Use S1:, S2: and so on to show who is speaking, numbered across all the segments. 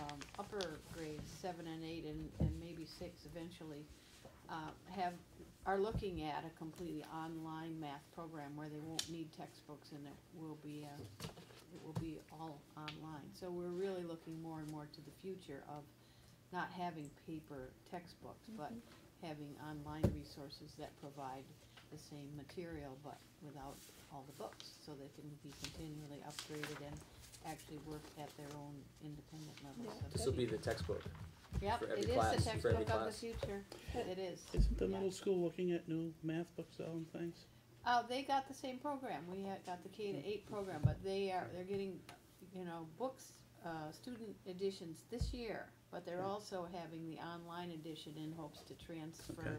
S1: um, seven and eight and, and maybe six eventually, uh, have, are looking at a completely online math program where they won't need textbooks and it will be, uh, it will be all online. So we're really looking more and more to the future of not having paper textbooks, but having online resources that provide the same material, but without all the books, so they can be continually upgraded and actually work at their own independent level.
S2: Yeah.
S1: So-
S3: This will be the textbook.
S1: Yep,
S3: for every
S1: it is
S3: class,
S1: the
S3: for every
S1: textbook of the
S3: class.
S1: future, it is.
S4: Isn't the
S1: Yeah.
S4: middle school looking at new math books though and things?
S1: Uh, they got the same program. We had, got the K to eight program, but they are, they're getting, you know, books, uh, student editions this year. But they're also having the online edition in hopes to transfer,
S4: Okay.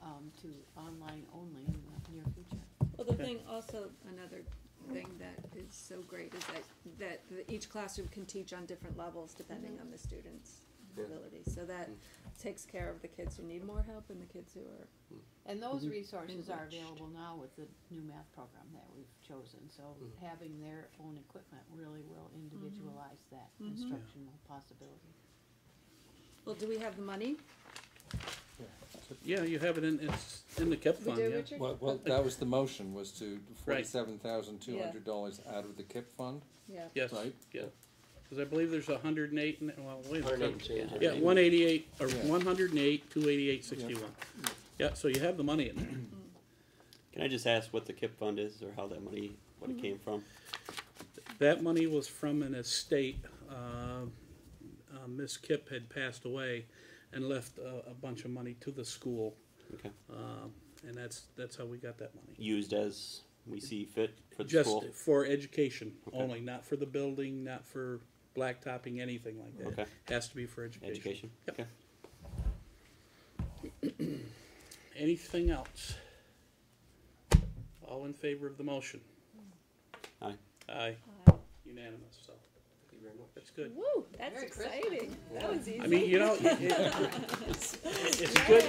S1: um, to online only in the near future.
S2: Well, the thing also, another thing that is so great is that, that the- each classroom can teach on different levels depending on the student's
S3: Yeah.
S2: ability. So that
S3: Mm.
S2: takes care of the kids who need more help and the kids who are,
S1: And those
S4: Mhm.
S1: resources are
S2: Enriched.
S1: available now with the new math program that we've chosen, so
S3: Mhm.
S1: having their own equipment really will
S2: Mm-hmm.
S1: individualize that
S2: Mhm.
S1: instructional possibility.
S2: well, do we have the money?
S4: Yeah, you have it in, it's in the KIP
S2: We
S4: fund,
S2: do,
S4: yeah.
S2: Richard?
S5: Well, well, that was the motion, was to
S4: Right.
S5: forty-seven thousand two hundred dollars out of the KIP fund.
S2: Yeah.
S4: Yes,
S5: Right.
S4: yeah. Cause I believe there's a hundred and eight, in it- well, wait a
S3: Hundred and
S4: second.
S3: change. I
S4: Yeah,
S3: mean.
S4: one eighty-eight, or
S5: Yeah.
S4: one hundred and eight, two eighty-eight, sixty-one. Yeah, so you have the money in there.
S6: Can I just ask what the KIP fund is or how that money, what it came from?
S4: That money was from an estate, uh, uh, Miss Kip had passed away and left a, a bunch of money to the school.
S6: Okay.
S4: Um, and that's, that's how we got that money.
S6: Used as we see fit for the
S4: Just
S6: school?
S4: for education
S6: Okay.
S4: only, not for the building, not for blacktopping, anything like that.
S6: Okay.
S4: Has to be for education.
S6: Education?
S4: Yep.
S6: Okay.
S4: Anything else? All in favor of the motion?
S6: Aye.
S4: Aye, unanimous, so
S3: Thank you very much.
S4: that's good.
S2: Uh, Woo,
S1: Merry
S2: that's
S1: Christmas.
S2: exciting. That was easy.
S4: I mean, you know, it- it- it's, it's good,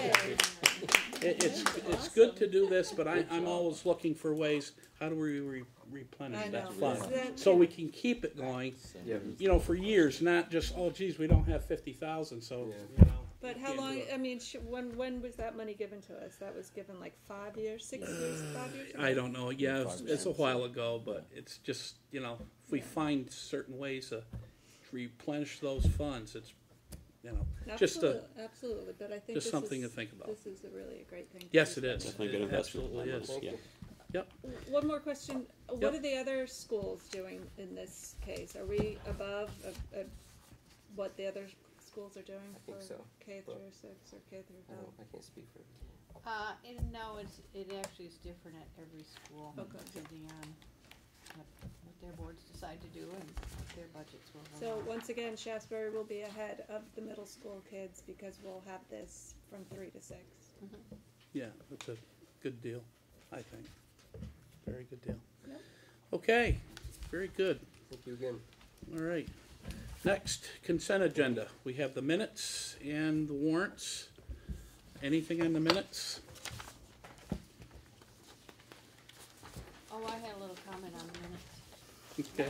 S4: it- it's, it's good to do this, but I, I'm always looking for ways, how do we re-
S2: I
S4: replenish
S2: know.
S4: that
S2: Is
S4: fund?
S2: that-
S4: So we can keep it going,
S5: So-
S3: Yeah.
S4: you know, for years, not just, oh geez, we don't have fifty thousand, so,
S3: Yeah.
S4: you know.
S2: But
S4: we
S2: how
S4: can't do
S2: long,
S4: it.
S2: I mean, sh- when, when was that money given to us? That was given like five years, six years, five years?
S4: I don't know, yeah, it's,
S5: Five
S4: it's a
S5: cents.
S4: while ago, but it's just, you know, if we
S2: Yeah.
S4: find certain ways to replenish those funds, it's, you know, just a,
S2: Absolutely, Absolutely, but I think
S4: just
S2: this
S4: something to
S2: is-
S4: think about.
S2: This is a really a great thing. to
S4: Yes,
S2: do.
S4: it is.
S6: Definitely a good
S4: It
S6: investment.
S4: absolutely is.
S3: Thank
S6: Yeah.
S3: you.
S4: Yep,
S2: One more question.
S4: Yep.
S2: What are the other schools doing in this case? Are we above uh, uh, what the other schools are doing
S3: I think
S2: for
S3: so,
S2: K
S3: but-
S2: through six or K through
S3: I don't,
S2: five?
S3: I can't speak for everything.
S1: Uh, and no, it's, it actually is different at every school,
S2: Okay.
S1: depending on what, what their boards decide to do and what their budgets will
S2: So
S1: allow.
S2: once again, Shasberry will be ahead of the middle school kids because we'll have this from three to six.
S4: yeah, that's a good deal, I think. Very good deal.
S2: Yep.
S4: Okay, very good.
S3: Thank you again.
S4: All right. Next, consent agenda. We have the minutes and the warrants. Anything on the minutes?
S1: Oh, I had a little comment on the minutes.
S4: Okay.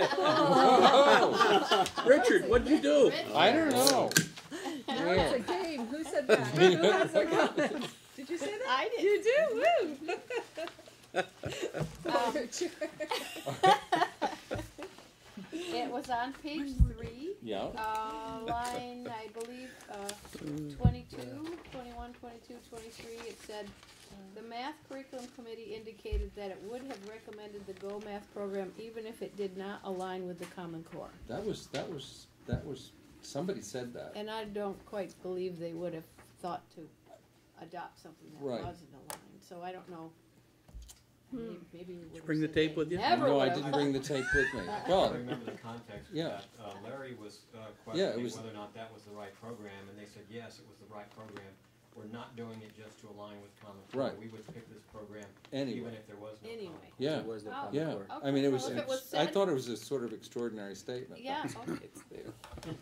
S2: Uh-oh.
S4: Richard, what'd you do?
S5: Oh, I don't know.
S2: Now it's a game. Who said that? Who has their comments? Did you say that?
S1: I did.
S2: You do, woo!
S1: Um,
S2: Richard.
S1: It was on page three.
S5: Yeah,
S1: Uh, line, I believe, uh, 22, 21, 22, 23, it said, "The math curriculum committee indicated that it would have recommended the Go Math program even if it did not align with the Common Core."
S5: that was, that was, that was, somebody said that.
S1: And I don't quite believe they would have thought to adopt something that
S5: Right.
S1: wasn't aligned, so I don't know. Maybe maybe we would have
S4: bring the
S1: said
S4: tape
S1: they
S4: with you?
S1: Never
S5: No, I
S1: would've.
S5: didn't bring the tape with me.
S7: I
S5: Well,
S7: remember the context of
S5: Yeah.
S7: that. Uh, Larry was uh,
S5: Yeah, it
S7: questioning
S5: was-
S7: whether or not that was the right program, and they said, yes, it was the right program. We're not doing it just to align with Common Core.
S5: Right.
S7: We would pick this program even
S5: anyway,
S7: if there was no Common
S1: Anyway.
S7: Core.
S5: yeah,
S3: There was no
S1: Oh.
S3: Common
S5: yeah.
S3: Core.
S5: I mean, it
S1: Okay,
S5: was,
S1: well, if it was
S5: I
S1: said-
S5: thought it was a sort of extraordinary statement.
S1: Yeah, okay.
S3: It's there.
S1: Okay.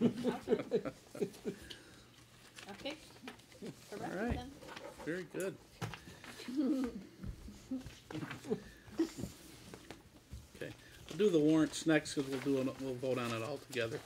S1: Okay. Correct
S4: All right.
S1: then.
S4: Very good. Okay, we'll do the warrants next, because we'll do, an- we'll vote on it all together.